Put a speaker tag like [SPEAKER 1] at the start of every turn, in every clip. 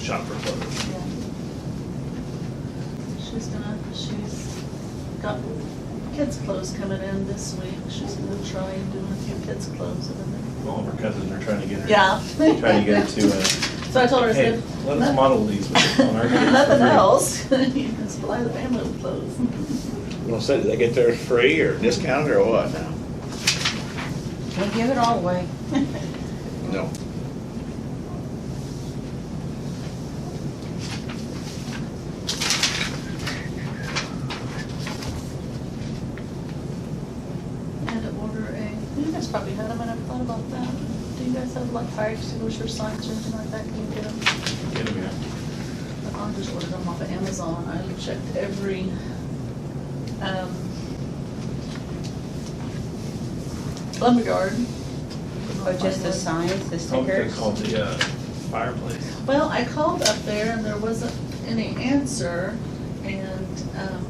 [SPEAKER 1] shop for clothes.
[SPEAKER 2] Yeah. She's gonna, she's got kids' clothes coming in this week. She's gonna try doing a few kids' clothes and then,
[SPEAKER 1] All of her cousins are trying to get her.
[SPEAKER 2] yeah.
[SPEAKER 1] Trying to get her to, uh,
[SPEAKER 2] So I told her, I
[SPEAKER 1] hey,
[SPEAKER 2] said,
[SPEAKER 1] let us model these on our.
[SPEAKER 2] nothing else, you can supply the family with clothes.
[SPEAKER 3] Well, so do they get theirs free or discounted or what now?
[SPEAKER 4] We give it all away.
[SPEAKER 3] No.
[SPEAKER 2] And order a, you guys probably had them, I never thought about that. Do you guys have like fire extinguisher signs or anything like that? Can you get them?
[SPEAKER 1] Get them, yeah.
[SPEAKER 2] I just ordered them off of Amazon. I checked every, um, lumberyard.
[SPEAKER 4] Oh, just the signs, the
[SPEAKER 1] Called- Oh, They're
[SPEAKER 4] stickers?
[SPEAKER 1] called the uh, fireplace.
[SPEAKER 2] Well, I called up there and there wasn't any answer and, um,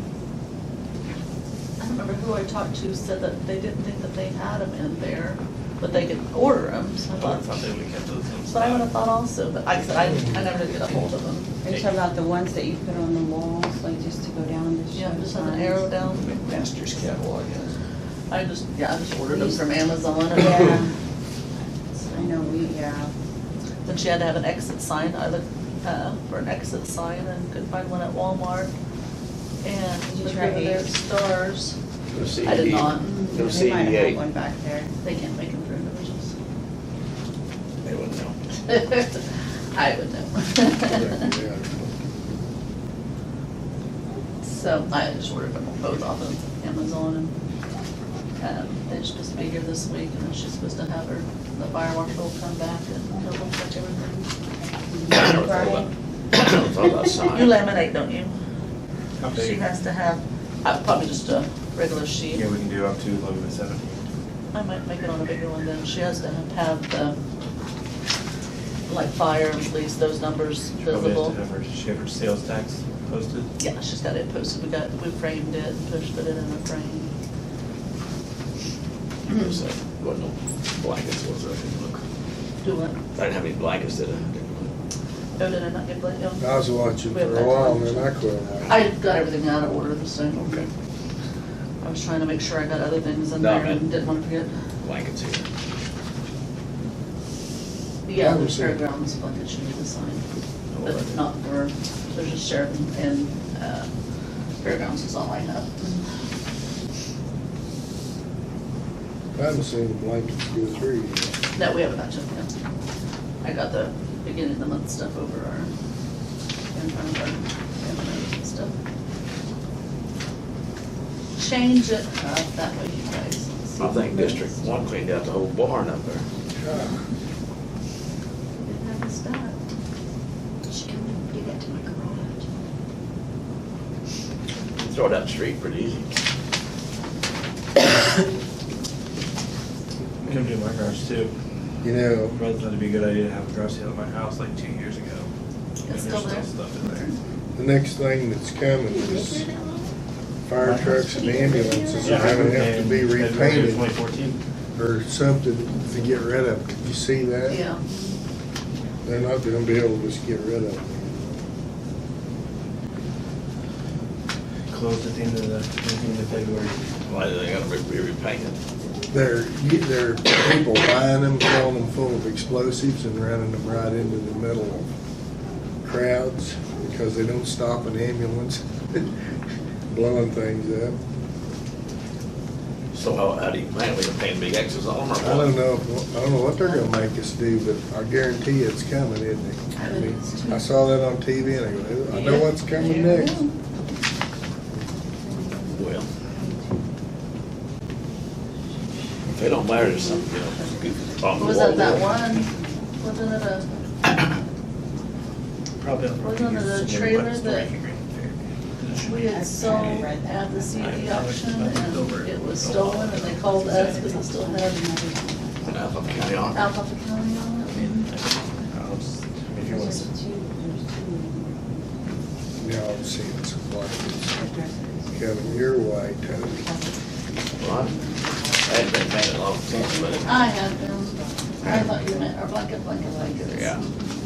[SPEAKER 2] I don't remember who I talked to said that they didn't think that they had them in there, but they could order them, so I
[SPEAKER 1] I thought
[SPEAKER 2] thought.
[SPEAKER 1] they would get those in
[SPEAKER 2] Uh-huh. So I
[SPEAKER 1] stock.
[SPEAKER 2] would have thought also, but like I said, I, I never did get a hold of them.
[SPEAKER 4] Are you talking about the ones that you put on the walls, like just to go down the show
[SPEAKER 2] Yeah,
[SPEAKER 4] signs?
[SPEAKER 2] just have an arrow down.
[SPEAKER 5] McMaster's catalog has
[SPEAKER 2] I just, yeah, I just ordered them from Amazon
[SPEAKER 4] Yeah.
[SPEAKER 2] and
[SPEAKER 4] I know, we, yeah.
[SPEAKER 2] then she had to have an exit sign. I looked, uh, for an exit sign and couldn't find one at Walmart. And
[SPEAKER 4] Did you
[SPEAKER 2] looked
[SPEAKER 4] try
[SPEAKER 2] over their
[SPEAKER 4] Ace?
[SPEAKER 2] stars.
[SPEAKER 3] Go see
[SPEAKER 2] I did
[SPEAKER 3] the-
[SPEAKER 2] not.
[SPEAKER 3] Go
[SPEAKER 4] They
[SPEAKER 3] see
[SPEAKER 4] might
[SPEAKER 3] the
[SPEAKER 4] have had
[SPEAKER 3] eight.
[SPEAKER 4] one back there.
[SPEAKER 2] They can't make them for individuals.
[SPEAKER 3] They wouldn't know.
[SPEAKER 2] I would know. So I just ordered them both off of Amazon and, um, they should just be here this week and then she's supposed to have her, the fire marshal come back and double check everything.
[SPEAKER 3] I never thought about, I never thought about
[SPEAKER 2] You
[SPEAKER 3] signs.
[SPEAKER 2] laminate, don't you?
[SPEAKER 1] How
[SPEAKER 2] She
[SPEAKER 1] big?
[SPEAKER 2] has to have, uh, probably just a regular sheet.
[SPEAKER 1] Yeah, we can do up to eleven to seventeen.
[SPEAKER 2] I might make it on a bigger one then. She has to have the, like fire and police, those numbers
[SPEAKER 1] Probably has
[SPEAKER 2] visible.
[SPEAKER 1] to have her, she have her sales tax posted.
[SPEAKER 2] Yeah, she's got it posted. We got, we framed it and pushed it in a frame.
[SPEAKER 3] So, Wasn't no blankets, was there? I didn't look.
[SPEAKER 2] Do what?
[SPEAKER 3] I didn't have any blankets, did I? I? didn't look.
[SPEAKER 2] Oh, did I not get blanked?
[SPEAKER 1] Uh,
[SPEAKER 6] I was watching for a while, and then I quit.
[SPEAKER 2] I got everything out of order this time.
[SPEAKER 3] Okay,
[SPEAKER 2] I was trying to make sure I got other things in
[SPEAKER 3] No,
[SPEAKER 2] there and
[SPEAKER 3] man.
[SPEAKER 2] didn't want to forget.
[SPEAKER 3] blankets here.
[SPEAKER 2] Yeah,
[SPEAKER 6] I
[SPEAKER 2] the
[SPEAKER 6] was here.
[SPEAKER 2] fairgrounds blanket she needed to sign,
[SPEAKER 3] Oh,
[SPEAKER 2] but
[SPEAKER 3] right.
[SPEAKER 2] not for, there's just sheriff and, uh, fairgrounds is all I have.
[SPEAKER 6] I haven't seen the blankets go through yet.
[SPEAKER 2] That we have a bunch of them. I got the beginning of the month stuff over our, in front of our, envelopes and stuff. Change it up that way, you guys.
[SPEAKER 3] I think District One cleaned out the whole barn up there.
[SPEAKER 2] It happens done.
[SPEAKER 7] She come and do that to my garage.
[SPEAKER 3] Throw it out the street pretty easy.
[SPEAKER 1] Come do my garage too.
[SPEAKER 6] You know,
[SPEAKER 1] Rather than it'd be a good idea to have a garage sale at my house like two years ago. And
[SPEAKER 2] It's
[SPEAKER 1] there's
[SPEAKER 2] still there.
[SPEAKER 1] Stuff in there.
[SPEAKER 6] the next thing that's coming is fire trucks and ambulances are gonna have to be
[SPEAKER 1] Twenty
[SPEAKER 6] repainted
[SPEAKER 1] fourteen.
[SPEAKER 6] or something to get rid of. Did you see that?
[SPEAKER 2] Yeah,
[SPEAKER 6] They're not gonna be able to just get rid of them.
[SPEAKER 1] Closed at the end of the, at the end of February.
[SPEAKER 3] Why do they gotta be be repainted?
[SPEAKER 6] They're, they're people buying them, filling them full of explosives and running them right into the middle of crowds because they don't stop an ambulance blowing things up.
[SPEAKER 3] So how, how do you plan, we gonna paint big X's on them or what?
[SPEAKER 6] I don't know, if- I don't know what they're gonna make us do, but I guarantee it's coming, isn't it? I mean, I saw that on TV and I go, I know what's coming next.
[SPEAKER 3] Well. If they don't matter, there's something, you know, good on the
[SPEAKER 2] was that
[SPEAKER 3] wall
[SPEAKER 2] that
[SPEAKER 3] there.
[SPEAKER 2] one, wasn't it a,
[SPEAKER 1] Probably. on
[SPEAKER 2] Wasn't
[SPEAKER 1] Friday.
[SPEAKER 2] it a
[SPEAKER 1] It's
[SPEAKER 2] trailer
[SPEAKER 1] everybody's
[SPEAKER 2] that-
[SPEAKER 1] still making great
[SPEAKER 2] we had sold at the CD auction and it was stolen and they called us because it still had
[SPEAKER 3] And I thought county on.
[SPEAKER 2] Alpha County on
[SPEAKER 1] I
[SPEAKER 2] it.
[SPEAKER 1] mean, I think- I'll just- I mean, If you want
[SPEAKER 4] There's
[SPEAKER 1] to.
[SPEAKER 4] two, there's
[SPEAKER 6] Now I'm seeing some blankets
[SPEAKER 4] two addresses.
[SPEAKER 6] coming your way, Tony.
[SPEAKER 3] Well, I I hadn't been paying a long attention, but
[SPEAKER 2] I had them, I thought you meant our blanket, blanket, blankets.
[SPEAKER 3] Yeah.